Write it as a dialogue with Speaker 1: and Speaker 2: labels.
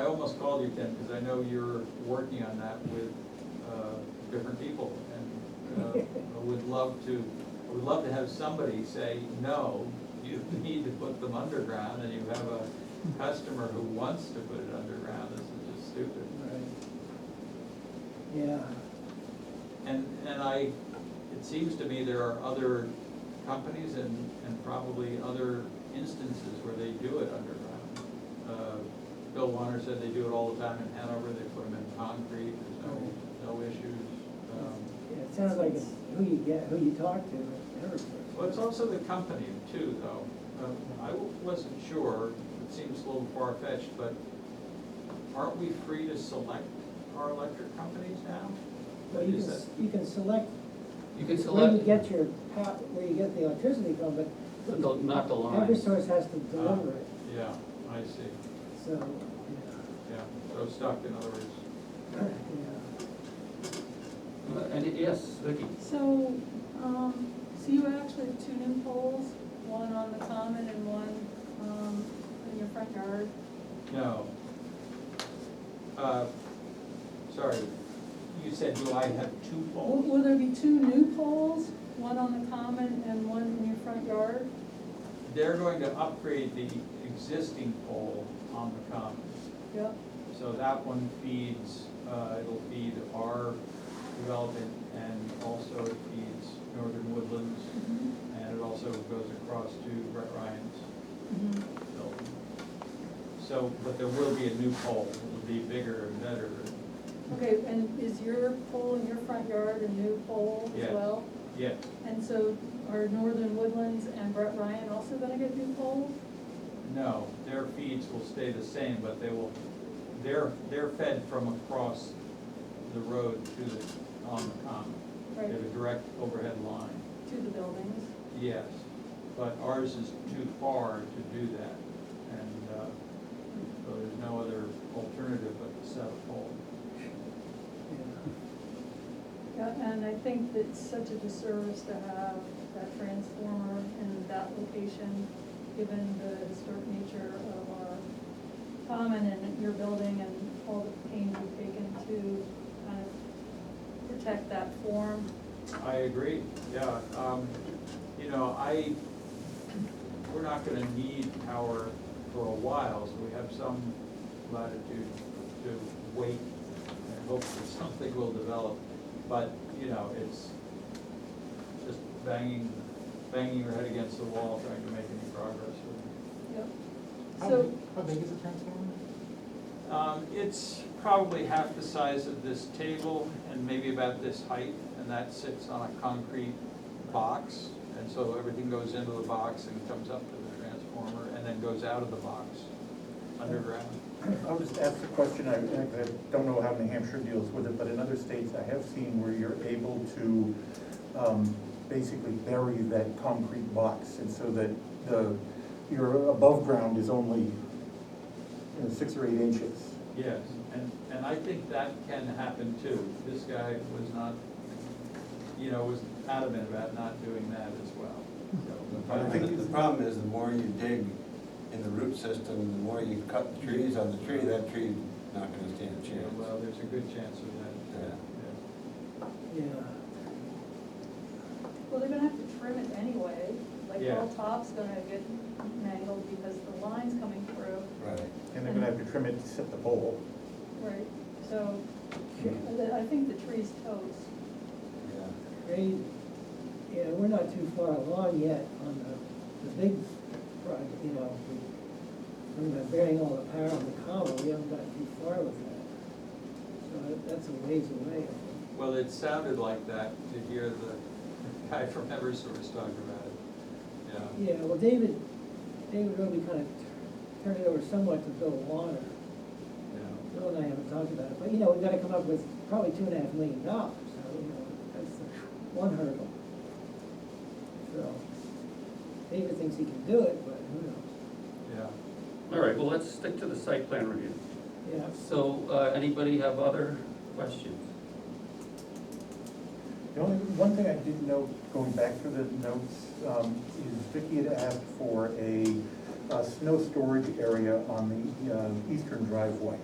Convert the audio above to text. Speaker 1: almost called you, Ken, because I know you're working on that with uh, different people. And uh, I would love to, I would love to have somebody say, no, you need to put them underground, and you have a customer who wants to put it underground, this is just stupid.
Speaker 2: Yeah,
Speaker 1: And, and I, it seems to me there are other companies and, and probably other instances where they do it underground. Uh, Bill Warner said they do it all the time in Hanover, they put them in concrete, there's no, no issues. Um,
Speaker 2: yeah, it sounds like it's who you get, who you talk to, everything.
Speaker 1: Well, it's also the company too, though. Um, I wasn't sure, it seems a little far-fetched, but aren't we free to select our electric companies now?
Speaker 2: Well, you
Speaker 1: Is
Speaker 2: can,
Speaker 1: that-
Speaker 2: s- you can select
Speaker 3: You can
Speaker 2: where you
Speaker 3: select,
Speaker 2: get your pow, where you get the electricity from, but
Speaker 3: the- the- not the
Speaker 2: every
Speaker 3: line. Ah.
Speaker 2: source has to deliver it,
Speaker 1: uh, Yeah, I see.
Speaker 2: so, yeah,
Speaker 1: Yeah, so stuck, in other words.
Speaker 2: yeah.
Speaker 3: Uh, And yes, Vicky,
Speaker 4: So, um, so you actually have two new poles, one on the common and one, um, in your front yard?
Speaker 1: No. Uh, Sorry, you said, do I have two
Speaker 4: Will,
Speaker 1: poles?
Speaker 4: will there be two new poles, one on the common and one in your front yard?
Speaker 1: They're going to upgrade the existing pole on the common.
Speaker 4: Yep.
Speaker 1: So that one feeds, uh, it'll feed our development and also it feeds Northern Woodlands. And it also goes across to Brett Ryan's building. So, but there will be a new pole. It'll be bigger and better.
Speaker 4: Okay, and is your pole in your front yard a new pole as
Speaker 1: Yes.
Speaker 4: well?
Speaker 1: Yeah,
Speaker 4: And so are Northern Woodlands and Brett Ryan also gonna get new poles?
Speaker 1: No, their feeds will stay the same, but they will, they're, they're fed from across the road to the, on the common. They
Speaker 4: Right,
Speaker 1: have a direct overhead line,
Speaker 4: to the buildings?
Speaker 1: yes, but ours is too far to do that. And, uh, so there's no other alternative but to set a pole.
Speaker 4: Yeah, and I think it's such a disservice to have that transformer in that location, given the historic nature of our common and your building and all the pains you've taken to kind of protect that form.
Speaker 1: I agree, yeah, um, you know, I, we're not gonna need power for a while, so we have some latitude to wait and hope that something will develop, but, you know, it's just banging, banging your head against the wall trying to make any progress with
Speaker 4: Yep.
Speaker 5: How
Speaker 4: So,
Speaker 5: big- How big is the transformer?
Speaker 1: it. Um, it's probably half the size of this table and maybe about this height, and that sits on a concrete box. And so everything goes into the box and comes up to the transformer and then goes out of the box underground.
Speaker 6: I'll just ask the question, I, I don't know how New Hampshire deals with it, but in other states, I have seen where you're able to, um, basically bury that concrete box, and so that the, your above ground is only, you know, six or eight inches.
Speaker 1: Yes, and, and I think that can happen too. This guy was not, you know, was adamant about not doing that as well.
Speaker 7: The
Speaker 1: So,
Speaker 7: problem- The problem is, the more you dig in the root system, the more you cut the trees on the tree, that tree's not gonna stand a
Speaker 1: you know,
Speaker 7: chance.
Speaker 1: Well, there's a good chance of that.
Speaker 7: Yeah.
Speaker 1: yeah.
Speaker 2: Yeah,
Speaker 4: well, they're gonna have to trim it anyway, like the
Speaker 1: Yeah.
Speaker 4: whole top's gonna get mangled because the line's coming through.
Speaker 7: Right.
Speaker 6: And they're gonna have to trim it to set the pole.
Speaker 4: Right. So, I I think the tree's toast.
Speaker 7: Yeah.
Speaker 2: great, yeah, we're not too far along yet on the, the big project, you know, we, we're not burying all the power on the common, we haven't got too far with that. So that- that's a ways away, I think.
Speaker 1: Well, it sounded like that to hear the guy from Eversource talk about it. Yeah,
Speaker 2: Yeah, well, David, David really kind of turned it over somewhat to Bill Warner.
Speaker 1: yeah.
Speaker 2: Bill and I haven't talked about it, but, you know, we've got to come up with probably two and a half million dollars, so, you know, that's the one hurdle. So, David thinks he can do it, but who knows?
Speaker 1: Yeah.
Speaker 3: all right, well, let's stick to the site plan review.
Speaker 2: Yeah,
Speaker 3: So, uh, anybody have other questions?
Speaker 6: The only, one thing I did note, going back through the notes, um, is Vicky had asked for a, uh snow storage area on the, uh, eastern driveway.